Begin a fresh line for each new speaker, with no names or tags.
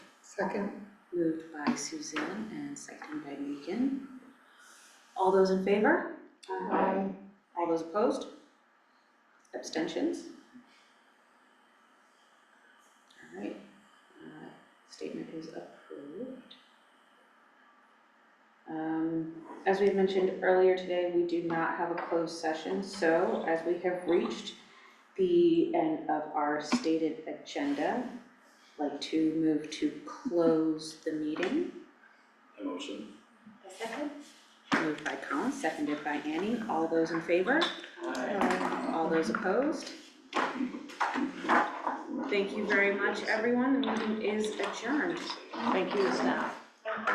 Second,
Moved by Suzanne and seconded by Megan. All those in favor?
Aye.
All those opposed? Abstentions? All right, uh, statement is approved. Um, as we had mentioned earlier today, we do not have a closed session, so as we have reached the end of our stated agenda, I'd like to move to close the meeting.
I motion.
Moved by Colin, seconded by Annie. All those in favor? All those opposed? Thank you very much, everyone. The meeting is adjourned.
Thank you, staff.